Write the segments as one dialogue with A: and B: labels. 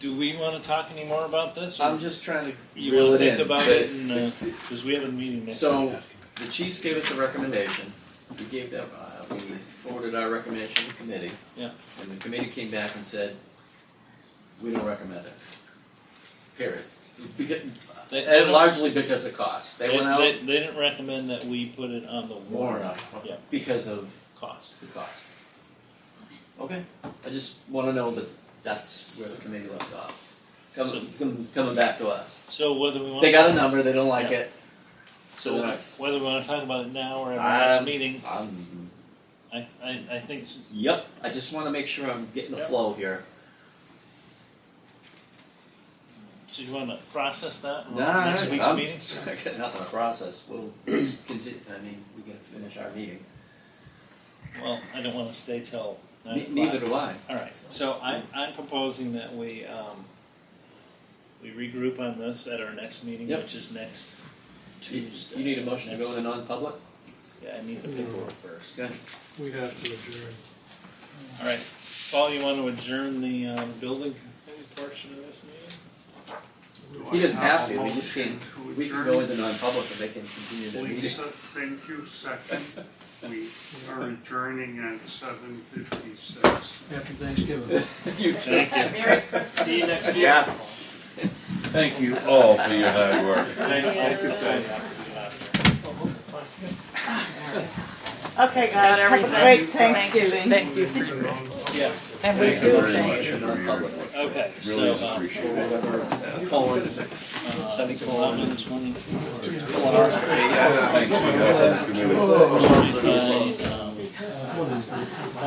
A: do we want to talk anymore about this? Or
B: I'm just trying to
A: you
B: Um, reel
A: want to
B: it
A: think
B: in.
A: about
B: but
A: it? Because we have a meeting next
B: So-
A: week.
B: The Chiefs gave us a recommendation. We gave them, uh, we forwarded our recommendation to the committee.
A: Yeah.
B: And the committee came back and said, we don't recommend it. Period. Because-
A: They, they
B: And
A: don't-
B: largely because of cost. They
A: they,
B: went out
A: they- they didn't recommend that we put it on the
B: more
A: warrant
B: enough
A: Yeah.
B: because of
A: cost.
B: the cost. Okay, I just wanna know that that's where the committee left off. Coming,
A: So-
B: com- coming back to us.
A: So whether we want
B: They
A: to,
B: got a number, they don't like
A: Yeah.
B: it.
A: so
B: they're not-
A: whether we want to talk about it now or at our next
B: Um,
A: meeting,
B: Um,
A: I, I, I think s-
B: yep, I just wanna make sure I'm getting the
A: Yep.
B: flow here.
A: so. You want to process that in
B: Nah,
A: Uh-huh. next
B: I-
A: week's
B: I'm-
A: meeting.
B: I got nothing to process, we'll just continue, I mean, we gotta finish our meeting.
A: Well, I don't want to stay till nine
B: Ne-
A: o'clock.
B: Neither do I.
A: All right, so I'm, I'm proposing that we, um, we regroup on this at our next meeting,
B: Yep.
A: which is next
B: You-
A: Tuesday.
B: You need a motion to go
A: Next-
B: into non-public?
A: Yeah, I need the paperwork first.
B: Okay.
C: We have to adjourn.
A: All right, Paul, you want to adjourn the, um, building committee portion of this meeting?
B: He doesn't have to, we just can, we can go into non-public and they can continue the meeting.
D: Lisa, thank you, second. We are adjourning at seven fifty-six.
C: After Thanksgiving.
B: You too.
E: Merry Christmas.
A: See you next year.
B: Yeah.
F: Thank you all for your hard work.
A: Thank you.
E: Thank you.
A: Thank
E: Okay, guys, have a great Thanksgiving.
G: Thank you for your.
A: you. Yes,
G: And we
F: Thank you
G: do
F: very
G: thank
F: much
G: you.
F: for your work.
A: okay, so,
F: Really
A: um,
B: Or
F: appreciate it.
B: whatever, uh, colon,
A: uh, it's eleven twenty-four.
F: Thanks for your efforts, committee.
A: RSA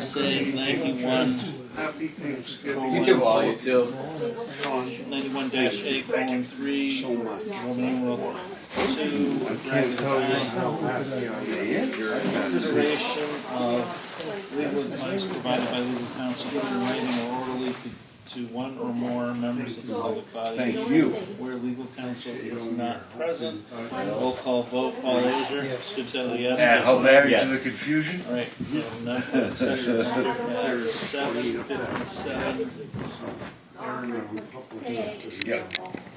A: ninety-one,
D: Happy Thanksgiving.
B: You too, all, you too.
A: ninety-one dash eight, colon three, Roman numeral two, consideration of legal advice provided by legal counsel in writing or orally to, to one or more members of the public body.
F: Thank you.
A: Where legal counsel is not present, roll call vote, Paul Azier, Sutton, yes.
F: And hilarious to
A: Yes.
F: the confusion.
A: All right, um, non-public session is at seven fifty-seven.
D: There are no public-
F: Yeah.